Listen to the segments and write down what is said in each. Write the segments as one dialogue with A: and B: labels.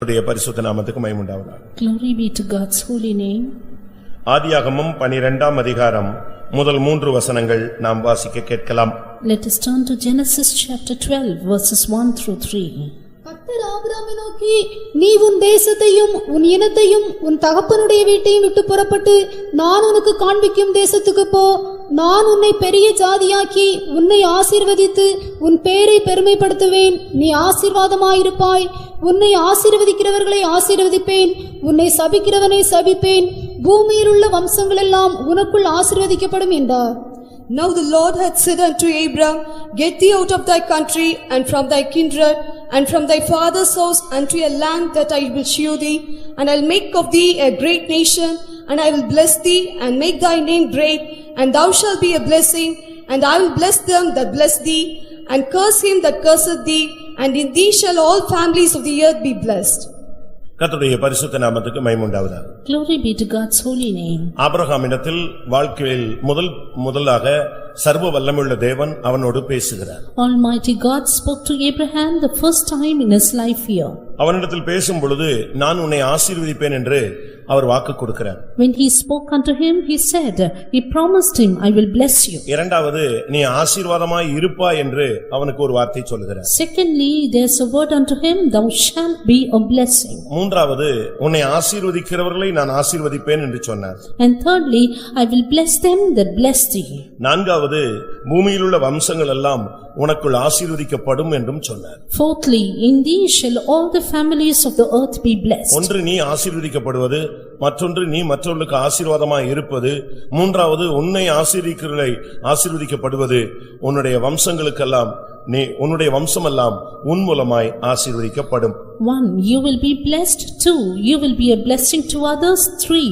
A: அவருடைய பரிசுத்த நாமத்துக்கு மயமுண்டாவதாக
B: Glory be to God's holy name.
A: ஆதியாகமம் பனிரெண்டாம் அதிகாரம் முதல் மூன்று வசனங்கள் நாம் வாசிக்க கேட்கலாம்
B: Let us turn to Genesis chapter 12 verses 1 through 3.
C: கர்த்தர் ஆபிரகாமை நோக்கி நீ உன் தேசத்தையும் உன் இனத்தையும் உன் தகப்பனுடைய வீட்டையும் விட்டு புறப்பட்டு நான் உனக்கு காண்பிக்கும் தேசத்துக்கு போ நான் உன்னை பெரிய ஜாதியாக்கி உன்னை ஆசீர்வதித்து உன் பேரை பெருமைப்படுத்துவேன் நீ ஆசீர்வாதமாயிருப்பாய் உன்னை ஆசீர்வதிக்கிறவர்களை ஆசீர்வதிப்பேன் உன்னை சபிக்கிறவனை சபிப்பேன் பூமியிலுள்ள வம்சங்களெல்லாம் உனக்குள் ஆசீர்வதிக்கப்படும் என்றார்
D: Now the Lord hath said unto Abram, Get thee out of thy country, and from thy kindred, and from thy father's house, unto a land that I will shew thee, and I'll make of thee a great nation, and I will bless thee, and make thy name great, and thou shalt be a blessing, and I will bless them that bless thee, and curse him that curseth thee, and in thee shall all families of the earth be blessed.
A: கர்த்தருடைய பரிசுத்த நாமத்துக்கு மயமுண்டாவதாக
B: Glory be to God's holy name.
A: ஆபிரகாமிடத்தில் வாழ்க்கையில் முதல் முதலாக சர்வ வல்லமுள்ள தேவன் அவனோடு பேசுகிறார்
B: Almighty God spoke to Abraham the first time in his life here.
A: அவனிடத்தில் பேசும் பொழுது நான் உன்னை ஆசீர்வதிப்பேன் என்று அவர் வாக்கு கொடுக்கிறார்
B: When he spoke unto him, he said, "He promised him, I will bless you."
A: இரண்டாவது நீ ஆசீர்வாதமாய் இருப்பாய் என்று அவனுக்கு ஒரு வார்த்தை சொல்லுகிறார்
B: Secondly, there's a word unto him, "Thou shalt be a blessing."
A: மூன்றாவது உன்னை ஆசீர்வதிக்கிறவர்களை நான் ஆசீர்வதிப்பேன் என்று சொன்னார்
B: And thirdly, "I will bless them that bless thee."
A: நான்காவது பூமியிலுள்ள வம்சங்கள் எல்லாம் உனக்குள் ஆசீர்வதிக்கப்படும் என்றும் சொன்னார்
B: Fourthly, "In thee shall all the families of the earth be blessed."
A: ஒன்று நீ ஆசீர்வதிக்கப்படுவது மற்றொன்று நீ மற்றவர்களுக்கு ஆசீர்வாதமாய் இருப்பது மூன்றாவது உன்னை ஆசீர்விக்கிறதை ஆசீர்வதிக்கப்படுவது உன்னுடைய வம்சங்களுக்கெல்லாம் நீ உன்னுடைய வம்சமெல்லாம் உன் மூலமாய் ஆசீர்வதிக்கப்படும்
B: One, you will be blessed. Two, you will be a blessing to others. Three,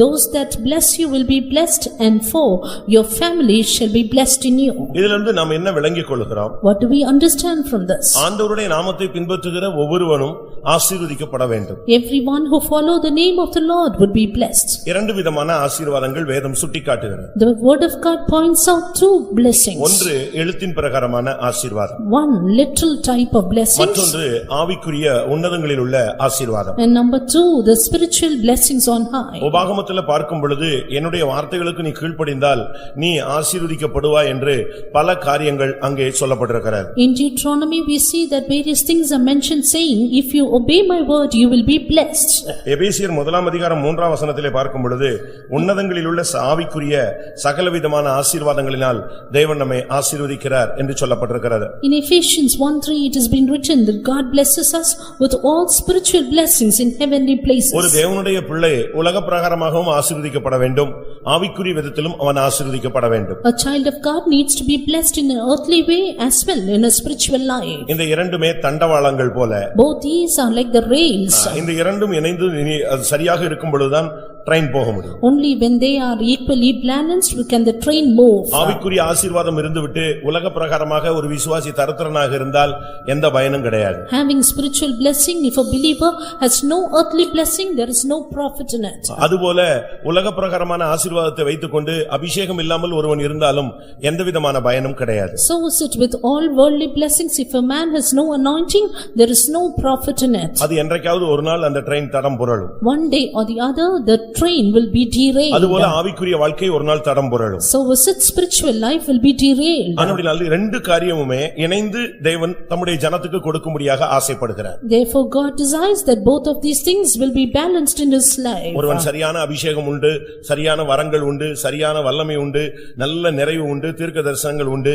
B: those that bless you will be blessed. And four, your family shall be blessed in you.
A: இதிலிருந்து நாம் என்ன விளங்கிக் கொள்கிறோம்
B: What do we understand from this?
A: ஆண்டவருடைய நாமத்தை பின்பற்றுகிற ஒவ்வொருவனும் ஆசீர்வதிக்கப்பட வேண்டும்
B: Everyone who follow the name of the Lord would be blessed.
A: இரண்டு விதமான ஆசீர்வாதங்கள் வேதம் சுட்டிக்காட்டுகிறது
B: The word of God points out two blessings.
A: ஒன்று எழுத்தின் பிரகாரமான ஆசீர்வாதம்
B: One, literal type of blessings.
A: மற்றொன்று ஆவிக்குரிய உன்னதங்களில் உள்ள ஆசீர்வாதம்
B: And number two, the spiritual blessings on high.
A: உபாகமத்துல பார்க்கும் பொழுது என்னுடைய வார்த்தைகளுக்கு நீ கீழ்ப்படிந்தால் நீ ஆசீர்வதிக்கப்படுவாய் என்று பல காரியங்கள் அங்கே சொல்லப்பட்டிருக்கிறது
B: In Deuteronomy, we see that various things are mentioned saying, "If you obey my word, you will be blessed."
A: எபேசியர் முதலாம் அதிகாரம் மூன்றாம் வசனத்திலே பார்க்கும் பொழுது உன்னதங்களில் உள்ள ச- ஆவிக்குரிய சகலவிதமான ஆசீர்வாதங்களினால் தேவன் நம்மை ஆசீர்வதிக்கிறார் என்று சொல்லப்பட்டிருக்கிறது
B: In Ephesians 1:3 it has been written that God blesses us with all spiritual blessings in heavenly
A: ஒரு
B: places.
A: தேவனுடைய பிள்ளை உலக பிரகாரமாகவும் ஆசீர்வதிக்கப்பட வேண்டும் ஆவிக்குரிய விதத்திலும் அவன் ஆசீர்வதிக்கப்பட வேண்டும்
B: A child of God needs to be blessed in an earthly way as well in a spiritual life.
A: இந்த இரண்டுமே தண்டவாளங்கள் போல
B: Both these are like the rails.
A: இந்த இரண்டும் இணைந்து இனி அது சரியாக இருக்கும் பொழுதுதான் ட்ரெயின் போக முடியும்
B: Only when they are equally balanced can the train move.
A: ஆவிக்குரிய ஆசீர்வாதம் இருந்துவிட்டு உலக பிரகாரமாக ஒரு விசுவாசி தரத்திரனாக இருந்தால் எந்த பயனும் கிடையாது
B: Having spiritual blessing, if a believer has no earthly blessing, there is no profit in it.
A: அதுபோல உலக பிரகாரமான ஆசீர்வாதத்தை வைத்துக்கொண்டு அபிஷேகம் இல்லாமல் ஒருவன் இருந்தாலும் எந்த விதமான பயனும் கிடையாது
B: So is it with all worldly blessings, if a man has no anointing, there is no profit in it.
A: அது என்றைக்காவது ஒரு நாள் அந்த ட்ரெயின் தடம் புரளும்
B: One day or the other, the train will be derailed.
A: அதுபோல ஆவிக்குரிய வாழ்க்கை ஒரு நாள் தடம் புரளும்
B: So is it spiritual life will be derailed.
A: ஆனால் ரெண்டு காரியமுமே இணைந்து தேவன் தம்முடைய ஜனத்துக்கு கொடுக்கும்படியாக ஆசைப்படுகிறார்
B: Therefore God desires that both of these things will be balanced in his life.
A: ஒருவன் சரியான அபிஷேகம் உண்டு சரியான வரங்கள் உண்டு சரியான வல்லமை உண்டு நல்ல நிறைவு உண்டு தீர்க்க தரிசனங்கள் உண்டு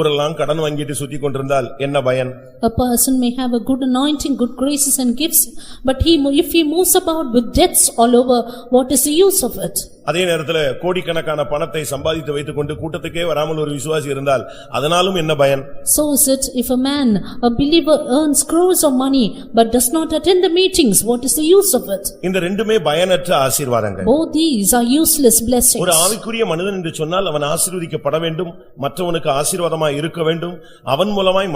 A: ஊரெல்லாம் கடன் வாங்கிட்டு சுத்தி கொண்டிருந்தால் என்ன பயன்
B: A person may have a good anointing, good graces and gifts, but he, mo- if he moves about with debts all over, what is the use of it?
A: அதே நேரத்துல கோடிக்கணக்கான பணத்தை சம்பாதித்து வைத்துக்கொண்டு கூட்டத்துக்கே வராமல் ஒரு விசுவாசி இருந்தால் அதனாலும் என்ன பயன்
B: So is it if a man, a believer earns crores of money, but does not attend the meetings, what is the use of it?
A: இந்த ரெண்டுமே பயனற்ற ஆசீர்வாதங்கள்
B: Both these are useless blessings.
A: ஒரு ஆவிக்குரிய மனிதன் என்று சொன்னால் அவன் ஆசீர்வதிக்கப்பட வேண்டும் மற்றவனுக்கு ஆசீர்வாதமாய் இருக்க வேண்டும் அவன் மூலமாய்